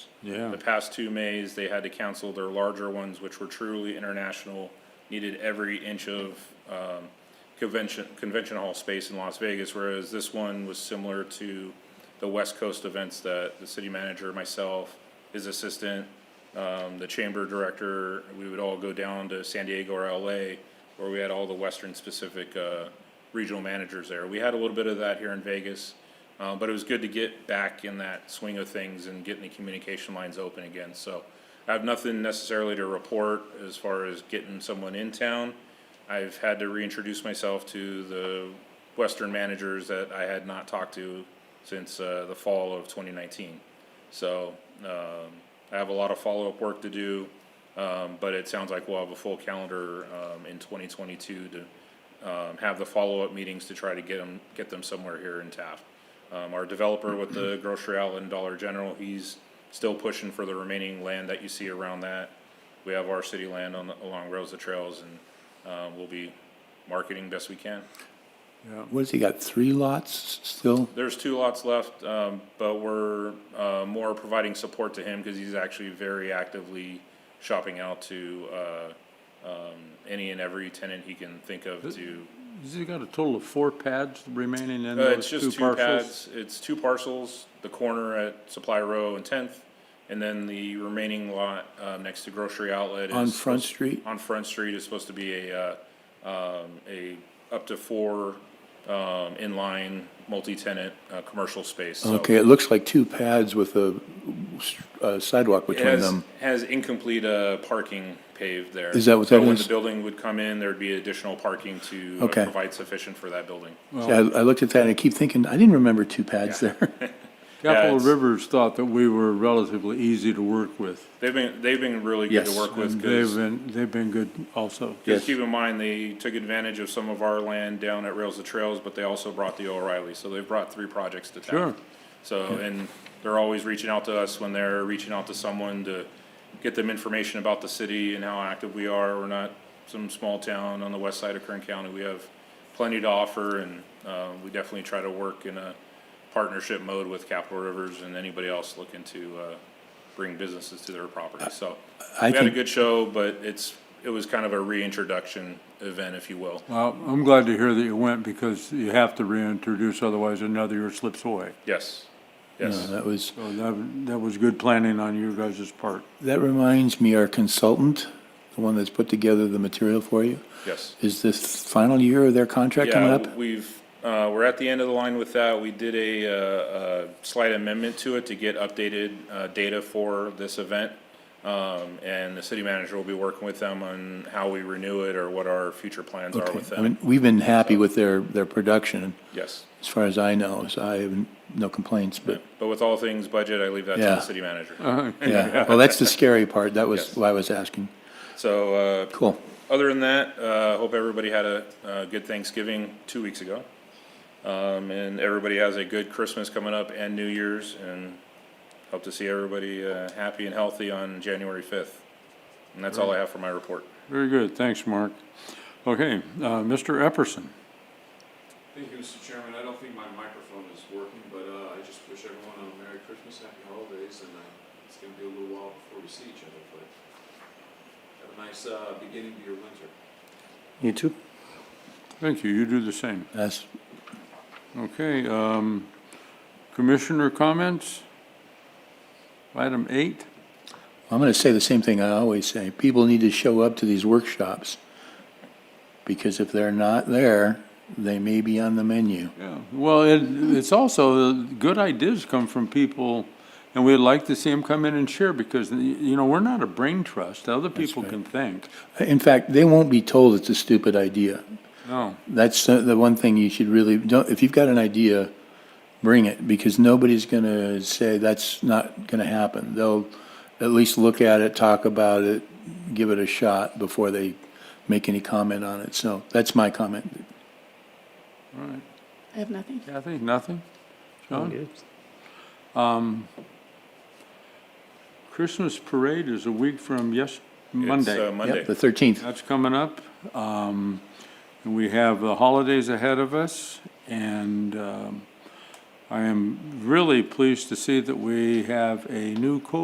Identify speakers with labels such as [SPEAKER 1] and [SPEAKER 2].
[SPEAKER 1] Yeah.
[SPEAKER 2] The past two Mays, they had to cancel their larger ones, which were truly international, needed every inch of um, convention, convention hall space in Las Vegas, whereas this one was similar to the West Coast events that the city manager, myself, his assistant, um, the chamber director, we would all go down to San Diego or LA, where we had all the Western specific uh, regional managers there. We had a little bit of that here in Vegas. Uh, but it was good to get back in that swing of things and getting the communication lines open again. So I have nothing necessarily to report as far as getting someone in town. I've had to reintroduce myself to the Western managers that I had not talked to since uh, the fall of 2019. So um, I have a lot of follow up work to do, um, but it sounds like we'll have a full calendar um, in 2022 to um, have the follow-up meetings to try to get them, get them somewhere here in Taft. Um, our developer with the grocery outlet and Dollar General, he's still pushing for the remaining land that you see around that. We have our city land on, the- along Rosa Trails and, uh, we'll be marketing best we can.
[SPEAKER 1] What has he got, three lots still?
[SPEAKER 2] There's two lots left, um, but we're, uh, more providing support to him because he's actually very actively shopping out to, uh, um, any and every tenant he can think of to
[SPEAKER 3] Has he got a total of four pads remaining in
[SPEAKER 2] Uh, it's
[SPEAKER 3] those two
[SPEAKER 2] just two
[SPEAKER 3] parcels?
[SPEAKER 2] pads, it's two parcels, the corner at Supply Row and Tenth, and then the remaining lot, uh, next to Grocery Outlet is.
[SPEAKER 1] On Front
[SPEAKER 2] supposed-
[SPEAKER 1] Street?
[SPEAKER 2] On Front Street is supposed to be a, uh, um, a, up to four, um, inline, multi-tenant, uh, commercial space, so.
[SPEAKER 1] Okay, it looks like two pads with a uh, sidewalk
[SPEAKER 2] It
[SPEAKER 1] between
[SPEAKER 2] has,
[SPEAKER 1] them.
[SPEAKER 2] has incomplete, uh, parking paved there.
[SPEAKER 1] Is that what that
[SPEAKER 2] So when
[SPEAKER 1] is?
[SPEAKER 2] the building would come in, there'd be additional parking to uh,
[SPEAKER 1] Okay.
[SPEAKER 2] provide sufficient for that building.
[SPEAKER 1] See, I I looked at that and I keep thinking, I didn't remember two pads there.
[SPEAKER 3] Capital
[SPEAKER 2] it's-
[SPEAKER 3] Rivers thought that we were relatively easy to work with.
[SPEAKER 2] They've been, they've been really good to
[SPEAKER 1] Yes.
[SPEAKER 2] work with,
[SPEAKER 3] And
[SPEAKER 2] 'cause-
[SPEAKER 3] they've been, they've been good also.
[SPEAKER 1] Yes.
[SPEAKER 2] Just keep in mind, they took advantage of some of our land down at Rails to Trails, but they also brought the O'Reilly, so they've brought three projects to town.
[SPEAKER 3] Sure.
[SPEAKER 2] So, and they're always reaching out to us when they're reaching out to someone to get them information about the city and how active we are. We're not some small town on the west side of Kern County. We have plenty to offer and, uh, we definitely try to work in a partnership mode with Capital Rivers and anybody else looking to, uh, bring businesses to their property, so. We
[SPEAKER 1] I
[SPEAKER 2] had a
[SPEAKER 1] think-
[SPEAKER 2] good show, but it's, it was kind of a reintroduction event, if you will.
[SPEAKER 3] Well, Uh, I'm glad to hear that you went because you have to reintroduce, otherwise another year slips away.
[SPEAKER 2] Yes,
[SPEAKER 1] No,
[SPEAKER 2] yes.
[SPEAKER 1] That was,
[SPEAKER 3] So that, that was good planning on your guys' part.
[SPEAKER 1] that reminds me, our consultant, the one that's put together the material for you,
[SPEAKER 2] Yes.
[SPEAKER 1] is this final year of their contract coming
[SPEAKER 2] Yeah,
[SPEAKER 1] up?
[SPEAKER 2] we've, uh, we're at the end of the line with that. We did a, uh, a slight amendment to it to get updated, uh, data for this event. Um, and the city manager will be working with them on how we renew it or what our future plans are
[SPEAKER 1] Okay.
[SPEAKER 2] with
[SPEAKER 1] I
[SPEAKER 2] them.
[SPEAKER 1] mean, we've been happy with their, their production,
[SPEAKER 2] Yes.
[SPEAKER 1] as far as I know, so I have no complaints, but,
[SPEAKER 2] But with all things budget, I leave that to
[SPEAKER 1] Yeah.
[SPEAKER 2] the city manager.
[SPEAKER 1] yeah. Well, that's the scary part. That
[SPEAKER 2] Yes.
[SPEAKER 1] was why I was asking.
[SPEAKER 2] So, uh,
[SPEAKER 1] Cool.
[SPEAKER 2] Other than that, uh, hope everybody had a, uh good Thanksgiving two weeks ago. Um, and everybody has a good Christmas coming up and New Year's and hope to see everybody, uh, happy and healthy on January fifth. And that's all I have for my report.
[SPEAKER 3] Very good, thanks, Mark. Okay, uh, Mr. Epperson.
[SPEAKER 4] Thank you, Mr. Chairman. I don't think my microphone is working, but uh, I just wish everyone a Merry Christmas, Happy Holidays, and uh, it's going to be a little while before we see each other, but have a nice uh, beginning to your winter.
[SPEAKER 1] You too.
[SPEAKER 3] Thank you, you do the same.
[SPEAKER 1] That's
[SPEAKER 3] Okay, um, commissioner comments? Item eight,
[SPEAKER 1] I'm going to say the same thing I always say. People need to show up to these workshops because if they're not there, they may be on the menu.
[SPEAKER 3] yeah, well, it, it's also, good ideas come from people, and we'd like to see them come in and share, because, you know, we're not a brain trust, other people can think.
[SPEAKER 1] In fact, they won't be told it's a stupid idea.
[SPEAKER 3] No,
[SPEAKER 1] That's the, the one thing you should really don't. If you've got an idea, bring it because nobody's going to say that's not going to happen. They'll at least look at it, talk about it, give it a shot before they make any comment on it. So that's my comment.
[SPEAKER 3] all right,
[SPEAKER 5] I have nothing.
[SPEAKER 3] Kathy, nothing? John? Um, Christmas parade is a week from yes, Monday.
[SPEAKER 2] It's, uh, Monday.
[SPEAKER 1] Yep, the 13th.
[SPEAKER 3] That's coming up. Um, and we have the holidays ahead of us, and, um, I am really pleased to see that we have a new co